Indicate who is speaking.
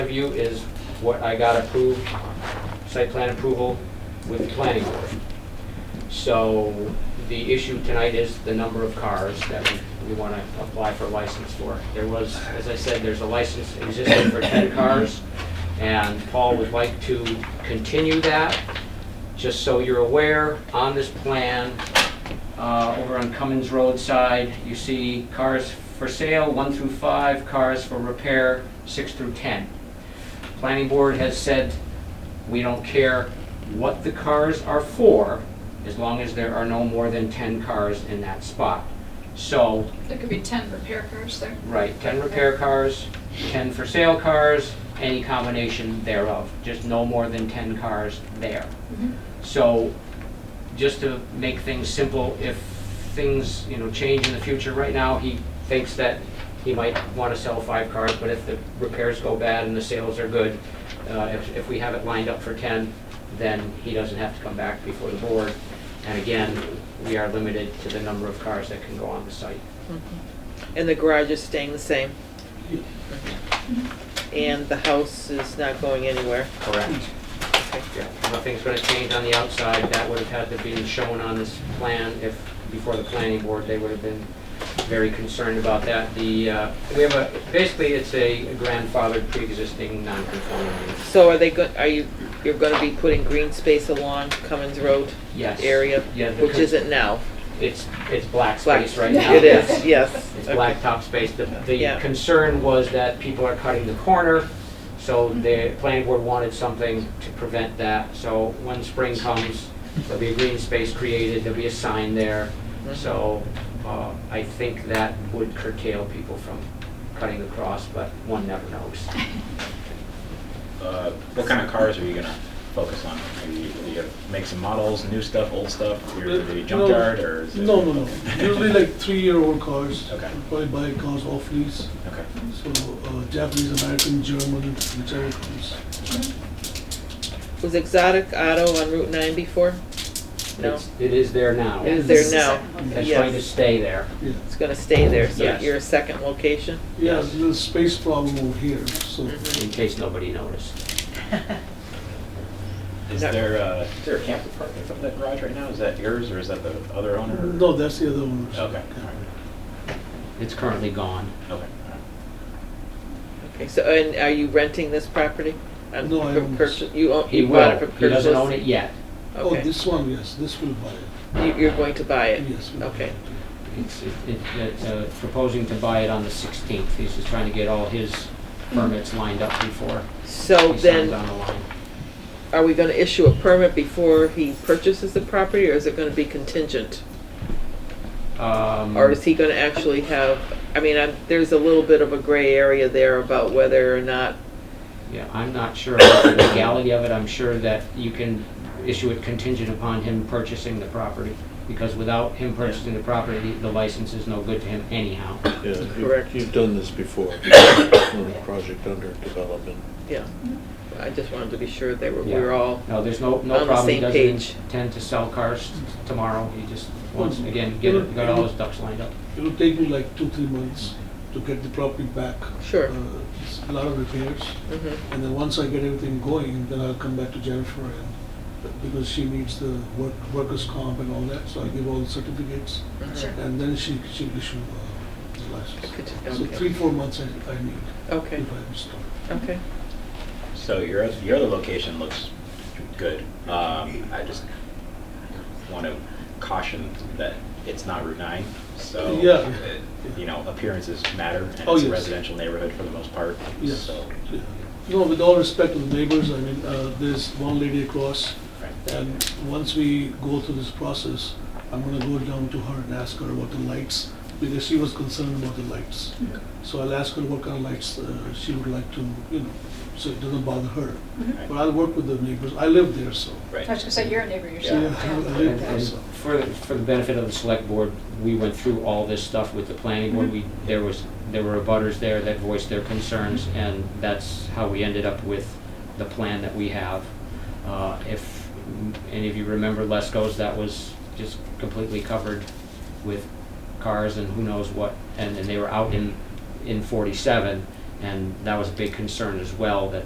Speaker 1: of you is what I got approved, site plan approval with the planning board. So the issue tonight is the number of cars that we- we want to apply for license for. There was, as I said, there's a license existing for 10 cars, and Paul would like to continue that. Just so you're aware, on this plan, uh, over on Cummins Road side, you see cars for sale, 1 through 5, cars for repair, 6 through 10. Planning Board has said, we don't care what the cars are for, as long as there are no more than 10 cars in that spot. So,
Speaker 2: There could be 10 repair cars there.
Speaker 1: right, 10 repair cars, 10 for sale cars, any combination thereof, just no more than 10 cars there.
Speaker 2: Mm-hmm.
Speaker 1: So, just to make things simple, if things, you know, change in the future, right now, he thinks that he might want to sell five cars, but if the repairs go bad and the sales are good, uh, if, if we have it lined up for 10, then he doesn't have to come back before the board. And again, we are limited to the number of cars that can go on the site.
Speaker 3: And the garage is staying the same. And the house is not going anywhere.
Speaker 1: Correct. Yeah, Nothing's gonna change on the outside, that would have had to be shown on this plan if, before the planning board, they would have been very concerned about that. The, uh, we have a, basically, it's a grandfathered pre-existing non-conforming use.
Speaker 3: So are they go, are you, you're gonna be putting green space along Cummins Road
Speaker 1: Yes.
Speaker 3: area?
Speaker 1: Yeah, the
Speaker 3: Which
Speaker 1: con-
Speaker 3: isn't now.
Speaker 1: It's, it's black
Speaker 3: Black-
Speaker 1: space right now.
Speaker 3: It is, yes.
Speaker 1: It's
Speaker 3: Okay.
Speaker 1: blacktop space. The, the
Speaker 3: Yeah.
Speaker 1: concern was that people are cutting the corner, so the planning board wanted something to prevent that. So when spring comes, there'll be a green space created, there'll be a sign there.
Speaker 3: Mm-hmm.
Speaker 1: So, uh, I think that would curtail people from cutting across, but one never knows.
Speaker 4: Uh, What kind of cars are you gonna focus on? Are you are you gonna make some models, new stuff, old stuff, your the
Speaker 5: Uh,
Speaker 4: junkyard,
Speaker 5: no.
Speaker 4: or is it?
Speaker 5: No, no, no. Usually like three-year-old cars.
Speaker 4: Okay.
Speaker 5: We Probably buy cars off lease,
Speaker 4: Okay,
Speaker 5: so uh, Japanese, American, German, whichever comes.
Speaker 3: Was Exotic Auto on Route nine before? No.
Speaker 1: It's- It is there now.
Speaker 3: It
Speaker 2: This
Speaker 3: is there
Speaker 2: is
Speaker 3: now.
Speaker 2: the second
Speaker 1: It's
Speaker 3: Yes.
Speaker 1: going to stay there.
Speaker 5: Yeah,
Speaker 3: It's gonna stay there, so
Speaker 1: Yes.
Speaker 3: you're a second location?
Speaker 5: yeah, there's a space problem over here, so.
Speaker 3: Mm-hmm.
Speaker 1: in case nobody noticed.
Speaker 4: is
Speaker 3: No.
Speaker 4: there, uh, is there a camper park in front of that garage right now? Is that yours, or is that the other owner? or-
Speaker 5: No, that's the other one.
Speaker 4: Okay, all right,
Speaker 1: It's currently gone.
Speaker 4: okay. all right.
Speaker 3: Okay, so, and are you renting this property? Um,
Speaker 5: No, I
Speaker 3: for
Speaker 5: own
Speaker 3: purchase-
Speaker 5: this.
Speaker 3: You own,
Speaker 1: He
Speaker 3: you bought it
Speaker 1: will,
Speaker 3: for
Speaker 1: he
Speaker 3: purchase?
Speaker 1: doesn't own it yet.
Speaker 5: Oh,
Speaker 3: Okay.
Speaker 5: this one, yes, this will buy it.
Speaker 3: You- You're going to buy it?
Speaker 5: Yes. we'll buy
Speaker 3: Okay.
Speaker 5: it.
Speaker 1: It's, it- it- it's uh, proposing to buy it on the 16th. He's just trying to get all his permits lined up before
Speaker 3: So
Speaker 1: he signs on
Speaker 3: Oh, then,
Speaker 1: the line.
Speaker 3: are we gonna issue a permit before he purchases the property, or is it gonna be contingent?
Speaker 1: Um,
Speaker 3: Or is he gonna actually have, I mean, I'm, there's a little bit of a gray area there about whether or not,
Speaker 1: Yeah, I'm not sure about the legality of it. I'm sure that you can issue it contingent upon him purchasing the property. Because without him purchasing the property, the license is no good to him anyhow.
Speaker 6: Yeah, you-
Speaker 3: Correct.
Speaker 6: You've done this before, on a project under development.
Speaker 3: yeah. I just wanted to be sure that we
Speaker 1: Yeah.
Speaker 3: were all,
Speaker 1: No, there's no,
Speaker 3: On
Speaker 1: no
Speaker 3: the
Speaker 1: problem. He
Speaker 3: same
Speaker 1: doesn't
Speaker 3: page. Hmm.
Speaker 1: intend to sell cars t- tomorrow. He just wants, again, get, it- got all his ducks lined up.
Speaker 5: It'll take me like two, three months to get the property back.
Speaker 3: Sure.
Speaker 5: Uh, it's A lot of repairs,
Speaker 3: Mhm.
Speaker 5: and then once I get everything going, then I'll come back to Jennifer and, because she needs the work, workers' comp and all that, so I give all the certificates.
Speaker 3: Mm-hmm.
Speaker 2: Sure.
Speaker 5: And then she, she'll issue uh, the license.
Speaker 3: Could-
Speaker 5: So
Speaker 3: okay.
Speaker 5: three, four months I, I need
Speaker 3: okay,
Speaker 5: if I am start.
Speaker 3: okay.
Speaker 4: So your, oth- your other location looks good. Um, I just want to caution that it's not Route 9, so.
Speaker 5: Yeah.
Speaker 4: it- You know, appearances matter, and
Speaker 5: Oh,
Speaker 4: it's a
Speaker 5: yes.
Speaker 4: residential neighborhood for the most part,
Speaker 5: Yes.
Speaker 4: so.
Speaker 5: Yeah. No, with all respect to the neighbors, I mean, uh, there's one lady across,
Speaker 4: right.
Speaker 5: and once we go through this process, I'm gonna go down to her and ask her about the lights, because she was concerned about the lights.
Speaker 2: Mm-hmm.
Speaker 5: So I'll ask her what kind of lights uh, she would like to, you know, so it doesn't bother her.
Speaker 4: Right.
Speaker 5: But I'll work with the neighbors, I live there, so.
Speaker 4: Right.
Speaker 2: I was gonna say, you're a neighbor yourself.
Speaker 5: Yeah.
Speaker 2: yeah.
Speaker 5: Yeah.
Speaker 1: And- and For, the- for the benefit of the select board, we went through all this stuff with the planning board. We, there was, there were abutters there that voiced their concerns, and that's how we ended up with the plan that we have. Uh, If any of you remember Lesko's, that was just completely covered with cars and who knows what, and, and they were out in, in forty-seven, and that was a big concern as well, that